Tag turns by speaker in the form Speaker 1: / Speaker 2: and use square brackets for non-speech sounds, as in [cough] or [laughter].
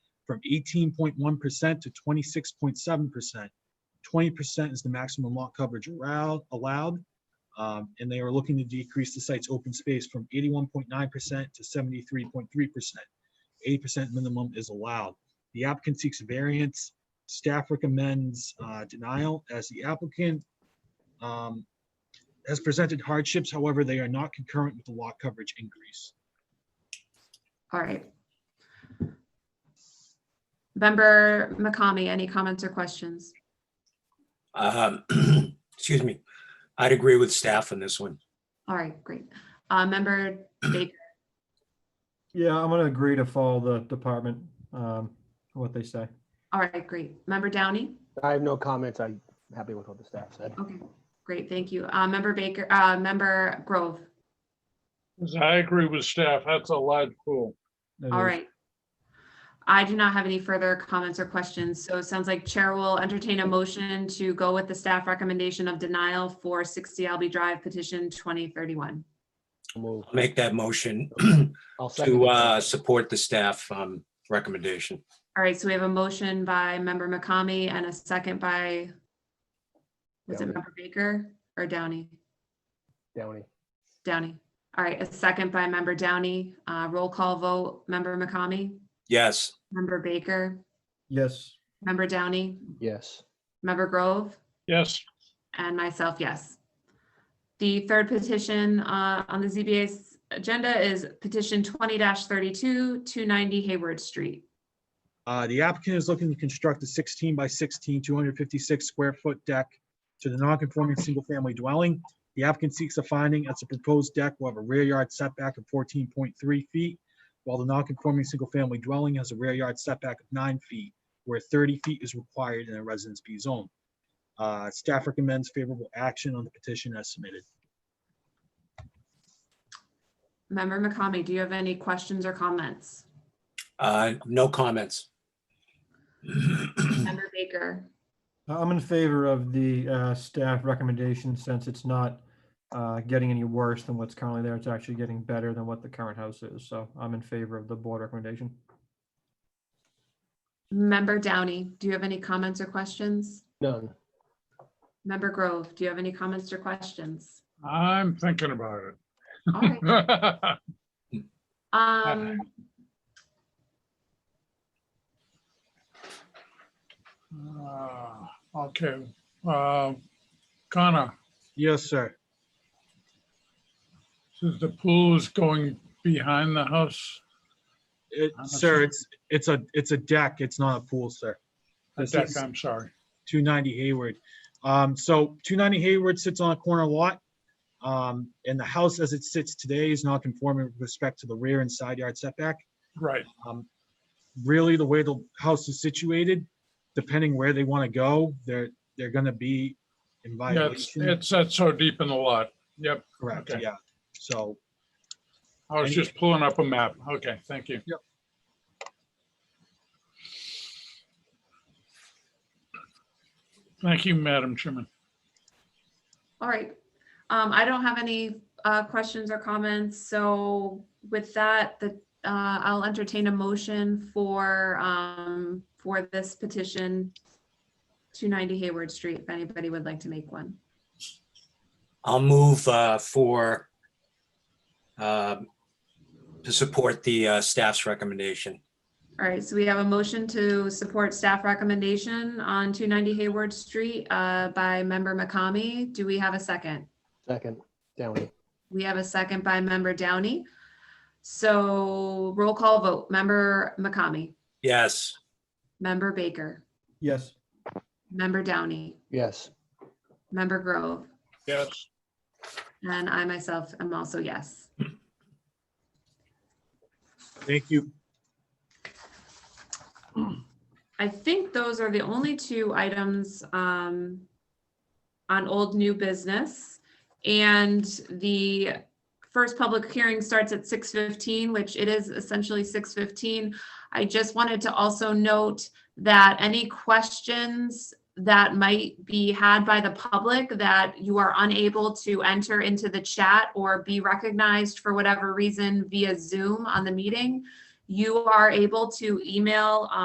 Speaker 1: from 18.1% to 26.7%. 20% is the maximum lot coverage arou- allowed. um, And they are looking to decrease the site's open space from 81.9% to 73.3%. 80% minimum is allowed. The applicant seeks variance. Staff recommends uh, denial as the applicant um, has presented hardships. However, they are not concurrent with the lot coverage increase.
Speaker 2: All right. Member McCamey, any comments or questions?
Speaker 3: Um, [clears throat] Excuse me. I'd agree with staff on this one.
Speaker 2: All right, great. Uh, member Baker,
Speaker 4: Yeah, I'm gonna agree to follow the department, um, what they say.
Speaker 2: all right, great. Member Downey?
Speaker 5: I have no comments. I'm happy with what the staff said.
Speaker 2: Okay, great, thank you. Uh, member Baker, uh, member Grove,
Speaker 6: 'Cause I agree with staff. That's a large pool.
Speaker 4: That
Speaker 2: all
Speaker 4: is-
Speaker 2: right. I do not have any further comments or questions, so it sounds like Chair will entertain a motion to go with the staff recommendation of denial for sixty Albee Drive petition twenty thirty-one.
Speaker 5: I'll move.
Speaker 3: I'll Make that motion [clears throat]
Speaker 5: I'll second
Speaker 3: to
Speaker 5: it.
Speaker 3: uh, support the staff um, recommendation.
Speaker 2: All right, so we have a motion by member McCamey and a second by was it
Speaker 5: Downey.
Speaker 2: member Baker or Downey?
Speaker 5: Downey,
Speaker 2: Downey. All right, a second by member Downey. Uh, roll call vote, member McCamey,
Speaker 3: Yes,
Speaker 2: member Baker,
Speaker 4: Yes,
Speaker 2: member Downey,
Speaker 5: yes.
Speaker 2: member Grove,
Speaker 6: Yes,
Speaker 2: and myself, yes. The third petition uh, on the ZBA's agenda is petition twenty thirty-two, two ninety Hayward Street.
Speaker 1: Uh, The applicant is looking to construct a 16 by 16, 256 square foot deck to the non-conforming single-family dwelling. The applicant seeks a finding as the proposed deck will have a rear yard setback of 14.3 feet, while the non-conforming single-family dwelling has a rear yard setback of 9 feet, where 30 feet is required in a Residence B zone. Uh, Staff recommends favorable action on the petition as submitted.
Speaker 2: Member McCamey, do you have any questions or comments?
Speaker 3: Uh, no comments.
Speaker 2: Member Baker,
Speaker 4: I'm in favor of the, uh, staff recommendation since it's not, uh, getting any worse than what's currently there. It's actually getting better than what the current house is. So I'm in favor of the board recommendation.
Speaker 2: Member Downey, do you have any comments or questions?
Speaker 5: None.
Speaker 2: Member Grove, do you have any comments or questions?
Speaker 6: I'm thinking about it. [laughs]
Speaker 2: All right. Um,
Speaker 6: Uh, Okay, uh, Connor,
Speaker 1: Yes, sir.
Speaker 6: says the pool is going behind the house.
Speaker 1: It-
Speaker 6: I'm not
Speaker 1: Sir,
Speaker 6: sure.
Speaker 1: it's, it's a, it's a deck. It's not a pool, sir.
Speaker 6: The
Speaker 1: This
Speaker 6: deck,
Speaker 1: is-
Speaker 6: I'm sorry.
Speaker 1: 290 Hayward. Um, so 290 Hayward sits on a corner lot. Um, and the house as it sits today is not conforming with respect to the rear and side yard setback.
Speaker 6: Right,
Speaker 1: Um, really, the way the house is situated, depending where they want to go, they're, they're gonna be in
Speaker 6: yeah, it's,
Speaker 1: violation.
Speaker 6: it's, that's so deep in the lot. Yep,
Speaker 1: Correct,
Speaker 6: okay.
Speaker 1: yeah. So,
Speaker 6: I was just pulling up a map. Okay, thank you. Thank you, Madam Chairman.
Speaker 2: all right. Um, I don't have any, uh, questions or comments, so with that, the, uh, I'll entertain a motion for, um, for this petition. Two ninety Hayward Street, if anybody would like to make one.
Speaker 3: I'll move uh, for um, to support the uh, staff's recommendation.
Speaker 2: All right, so we have a motion to support staff recommendation on two ninety Hayward Street, uh, by member McCamey. Do we have a second?
Speaker 5: Second, Downey,
Speaker 2: We have a second by member Downey. So roll call vote, member McCamey,
Speaker 3: Yes,
Speaker 2: member Baker,
Speaker 4: Yes,
Speaker 2: member Downey,
Speaker 5: yes.
Speaker 2: member Grove,
Speaker 6: Yes,
Speaker 2: and I myself am also yes.
Speaker 1: thank you.
Speaker 2: I think those are the only two items um, on old new business. And the first public hearing starts at 6:15, which it is essentially 6:15. I just wanted to also note that any questions that might be had by the public that you are unable to enter into the chat or be recognized for whatever reason via Zoom on the meeting, you are able to email